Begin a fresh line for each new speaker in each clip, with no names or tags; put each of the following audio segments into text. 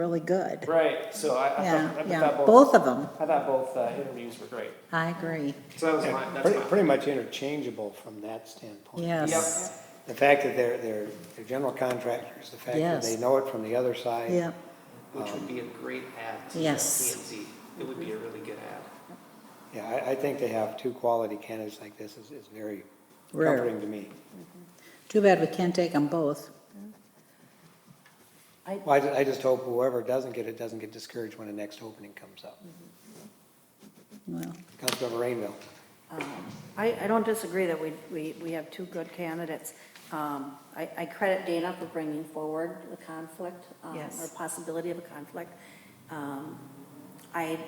really good.
Right, so I, I
Yeah,
thought, I
yeah,
thought both,
both of them.
I thought both uh, interviews were great.
I agree.
So that was
Yeah,
my, that's
Pretty,
my.
pretty much interchangeable from that standpoint.
Yes.
The fact that they're, they're, they're general contractors, the fact that
Yes.
they know it from the other side.
Yep.
Which would be a great ad to P and
Yes.
Z. It would be a really good ad.
Yeah, I, I think they have two quality candidates like this is, is very
Rare.
comforting to me.
Too bad we can't take them both.
Well, I, ju- I just hope whoever doesn't get it doesn't get discouraged when the next opening comes up.
Well,
Councilmember Rainville,
Um, I, I don't disagree that we, we, we have two good candidates. Um, I, I credit Dana for bringing forward the conflict, um,
Yes.
or possibility of a conflict. Um, I,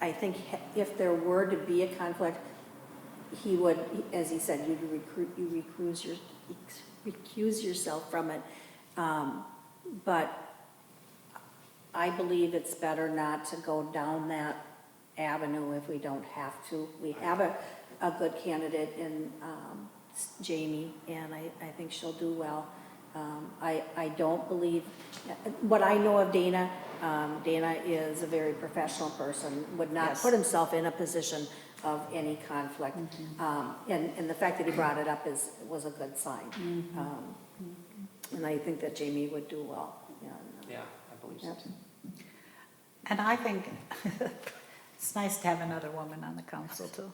I think he- if there were to be a conflict, he would, as he said, you'd recruit, you recuse your, recuse yourself from it. Um, But I believe it's better not to go down that avenue if we don't have to. We have a, a good candidate in um, Jamie, and I, I think she'll do well. Um, I, I don't believe, what I know of Dana, um, Dana is a very professional person, would not
Yes.
put himself in a position of any conflict. Um, And, and the fact that he brought it up is, was a good sign. Um, And I think that Jamie would do well, and,
Yeah, I believe so
Yep.
too.
And I think it's nice to have another woman on the council too,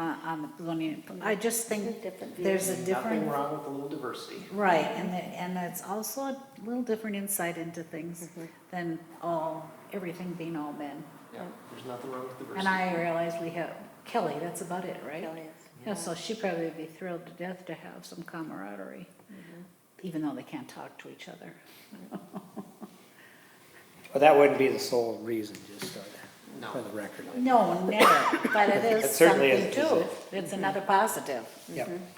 uh, on the zoning. I just think
Different
there's a
Nothing
different,
wrong with a little diversity.
right, and, it- and it's also a little different insight into things
Mm-hmm.
than all, everything being all men.
Yeah, there's nothing wrong with diversity.
And I realize we have Kelly, that's about it, right?
Kelly is.
Yeah, so she'd probably be thrilled to death to have some camaraderie,
Mm-hmm.
even though they can't talk to each other.
but that wouldn't be the sole reason, just so
No.
that- for the record.
No, never, but it
It
is
certainly
something
is,
too.
isn't
It's another positive.
Yep,
Mm-hmm.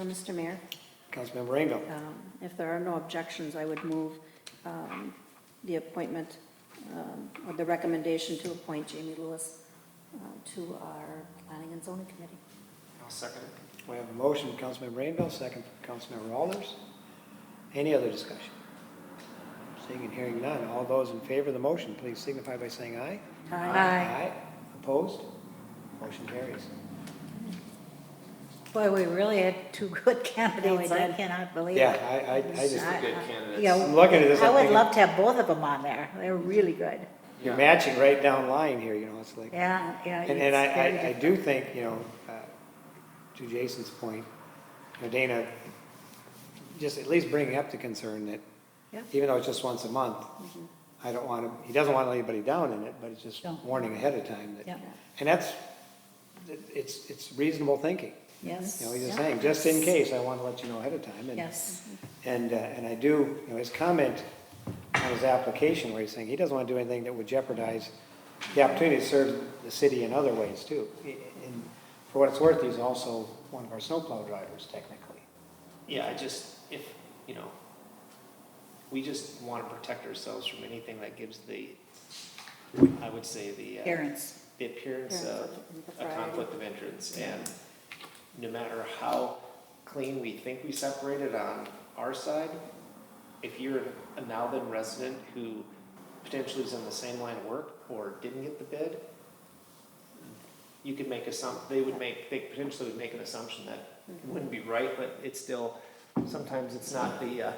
Uh, Mr. Mayor,
Councilmember Rainville.
um, if there are no objections, I would move um, the appointment, um, or the recommendation to appoint Jamie Lewis uh, to our Planning and Zoning Committee.
I'll second it.
We have a motion from Councilmember Rainville, second from Councilmember Alders. Any other discussion? Seeing and hearing none, all those in favor of the motion, please signify by saying aye. Aye. Opposed? Motion carries.
Boy, we really had two good candidates, I
did.
cannot believe it.
Yeah, I, I, I just,
I-
Good
I-
candidates.
yeah,
I'm looking at this,
I
I'm
would
thinking,
love to have both of them on there, they're really good,
you're
Yeah.
matching right down line here, you know, it's like.
yeah, yeah.
And, and
it's
I,
very
I, I
good.
do think, you know, uh, to Jason's point, you know, Dana, just at least bringing up the concern that,
Yeah. Mm-hmm.
even though it's just once a month, I don't want to, he doesn't want to let anybody down in it, but it's just
No.
warning ahead of time
Yeah.
that, and that's, it's, it's reasonable thinking.
Yes.
You know, he's just
yeah.
saying, just in case, I want to let you know ahead of time. and-
Yes,
And, uh, and I do, you know, his comment on his application where he's saying he doesn't want to do anything that would jeopardize the opportunity to serve the city in other ways too. And for what it's worth, he's also one of our snowplow drivers technically.
Yeah, I just, if, you know, we just want to protect ourselves from anything that gives the, I would say the. uh,
parents,
the appearance
Yeah,
of a
impropriety.
conflict of interest. And no matter how clean we think we separated on our side, if you're a now then resident who potentially is in the same line of work or didn't get the bid, you could make assump, they would make, they potentially would make an assumption that wouldn't be right, but it's still, sometimes it's not the, uh,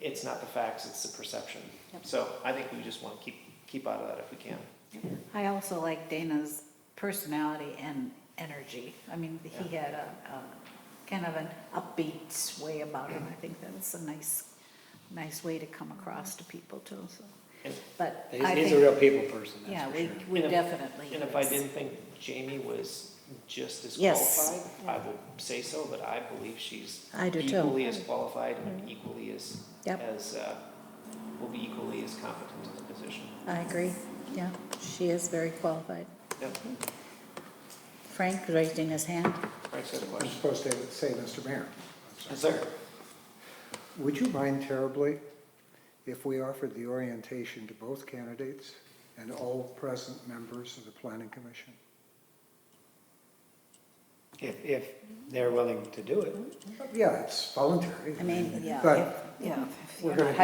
it's not the facts, it's the perception.
Yep.
So I think we just want to keep, keep out of that if we can.
I also like Dana's personality and energy, I mean, he had a, a kind of an upbeat way about him, I think that's a nice, nice way to come across to people too, so,
And
but I
He's,
think.
he's a real people person,
Yeah,
that's for
we,
sure.
we
And if-
definitely.
And if I didn't think Jamie was just as
Yes.
qualified, I will say so, but I believe she's
I do too.
equally as qualified and equally as,
Yep.
as, uh, will be equally as competent in the position.
I agree. Yeah, she is very qualified.
Yep,
Frank raising his hand.
Frank's got a
I'm
question.
supposed to say, Mr. Mayor,
Yes, sir.
would you mind terribly if we offered the orientation to both candidates and all present members of the planning commission?
If, if they're willing to do it.
Yeah, it's voluntary.
I mean, yeah,
But
if- yeah,
you're
gonna
not
do